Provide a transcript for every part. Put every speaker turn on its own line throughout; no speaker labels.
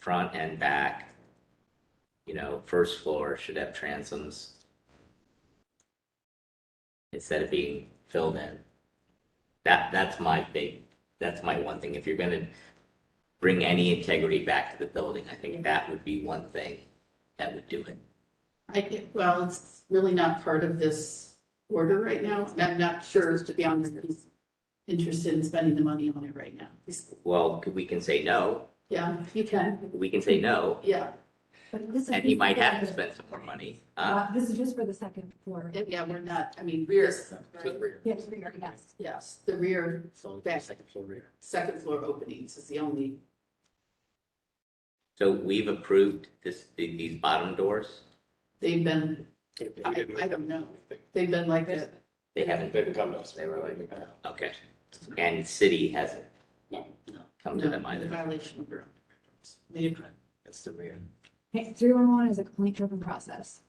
front and back. You know, first floor should have transoms. Instead of being filled in. That, that's my big, that's my one thing. If you're gonna bring any integrity back to the building, I think that would be one thing that would do it.
I think, well, it's really not part of this order right now, and I'm not sure, to be honest, who's interested in spending the money on it right now.
Well, we can say no,
Yeah, you can,
we can say no,
yeah,
But this is
and he might have to
just for the-
spend some more money. Uh,
Uh, This is just for the second floor.
and yeah, we're not, I mean, rear,
Yes, we are, yes.
yes, the rear, back,
Well,
second floor openings is the only,
So we've approved this, these bottom doors?
they've been, I, I don't know, they've been like that.
They haven't,
They've come to us. They were like. "Oh,
okay. And city hasn't
No, no.
come to them either.
Violation of your own.
That's the real.
Three one one is a complaint driven process.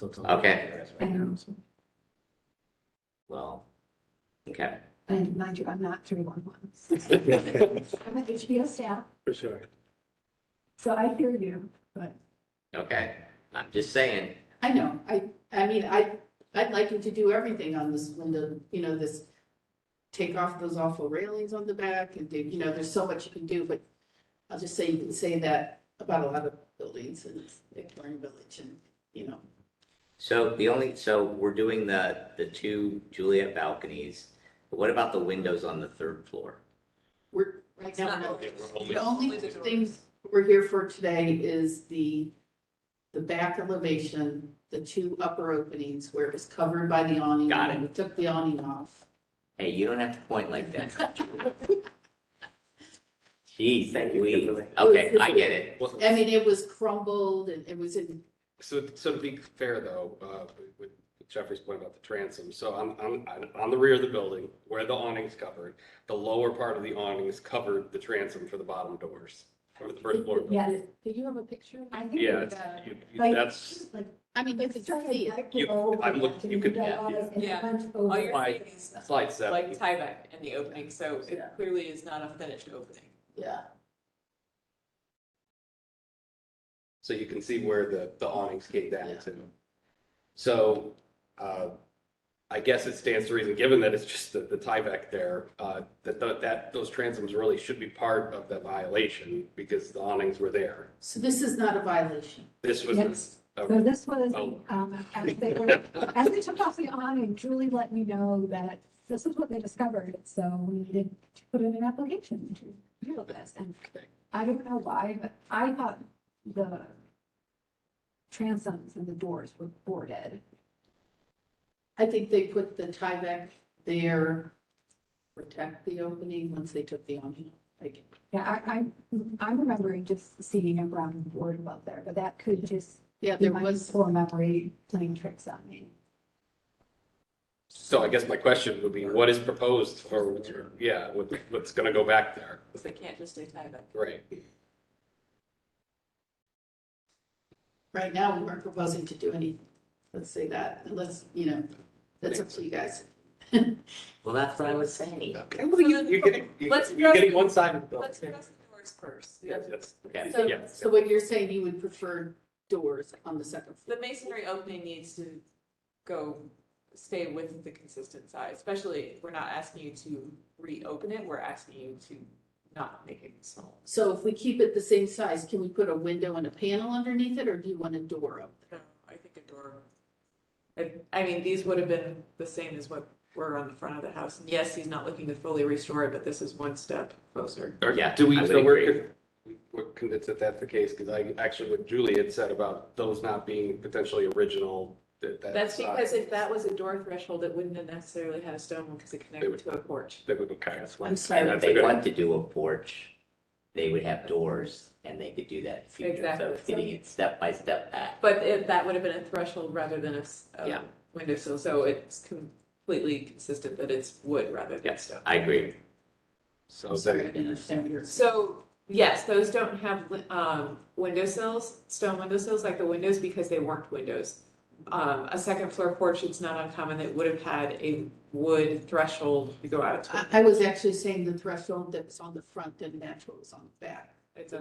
Okay.
And,
Well, okay.
and mind you, I'm not three one one. I'm an HBO staff,
For sure.
so I hear you, but
Okay, I'm just saying,
I know, I, I mean, I, I'd like you to do everything on this window, you know, this, take off those awful railings on the back and do, you know, there's so much you can do, but I'll just say, you can say that about a lot of buildings in Victorian Village and, you know,
so the only, so we're doing the, the two Juliet balconies. But What about the windows on the third floor?
we're, right now, we're not-
Only-
the only things we're here for today is the, the back elevation, the two upper openings where it was covered by the awning.
Got it.
and We took the awning off.
Hey, you don't have to point like that. Jeez, we, okay, I get it.
Well,
I mean, it was crumbled and it was in
So, so to be fair though, uh, with Jeffrey's point about the transom, so I'm, I'm, I'm on the rear of the building where the awning's covered. The lower part of the awning's covered the transom for the bottom doors, for the first floor.
yes.
Do you have a picture?
I think
Yeah,
it's,
it's- you- you-
like-
that's,
like,
I mean, you could see it.
You- I'm look- you could- yeah, Oh,
yeah. All you're
Over.
seeing is
slide seven.
like Tyvek in the opening, so it clearly is not a finished opening.
Yeah,
So you can see where the, the awnings came down to. So, uh, I guess it stands to reason, given that it's just the, the Tyvek there, uh, that, tho- that, those transoms really should be part of the violation because the awnings were there.
so this is not a violation.
This was
Yes.
a
So this was,
Oh.
um, as they were, as they took off the awning, Julie let me know that this is what they discovered, so we needed to put in an application to deal with this, and
Okay.
I don't know why, but I thought the transoms and the doors were boarded.
I think they put the Tyvek there, protect the opening once they took the awning. Like,
Yeah, I, I, I'm remembering just seeing a brown board above there, but that could just
yeah,
be
there
my
was,
poor memory playing tricks on me.
So I guess my question would be, what is proposed for, what's- yeah, what, what's gonna go back there?
So They can't just say Tyvek.
Right.
right now, we weren't proposing to do any, let's say that, unless, you know, that's up to you guys.
Well, that's what I was saying.
Okay, well, you- You're getting, you're
Let's-
you're getting one side of
Let's
the.
address the doors first.
Yes, yes.
Okay.
So,
Yes.
so what you're saying, you would prefer doors on the second floor?
The masonry opening needs to go, stay with the consistent size, especially we're not asking you to reopen it, we're asking you to not make it small.
So if we keep it the same size, can we put a window and a panel underneath it, or do you want a door up?
No, I think a door. I, I mean, these would have been the same as what were on the front of the house. And Yes, he's not looking to fully restore it, but this is one step closer.
Or
Yeah,
Do we,
I would
so we're,
agree.
con- we're convinced that that's the case, because I, actually what Julie had said about those not being potentially original, that, that.
That's because
size,
if that was a door threshold, it wouldn't have necessarily had a stone one because it connected to a porch.
That would be kind of.
I'm sorry.
If
That's a
they
good-
want to do a porch, they would have doors and they could do that in the future. So
Exactly.
it's getting it step by step back.
But if that would have been a threshold rather than a, s- a
Yeah.
windowsill, so it's completely consistent that it's wood rather than
Yes,
stone.
I agree.
So
Sorry, I
that,
didn't understand what you were saying.
So, yes, those don't have, um, windowsills, stone windowsills like the windows because they weren't windows. Um, a second floor porch, it's not uncommon that would have had a wood threshold to go out. to.
Ah.
I, I was actually saying the threshold that was on the front didn't match what was on the back.
it's a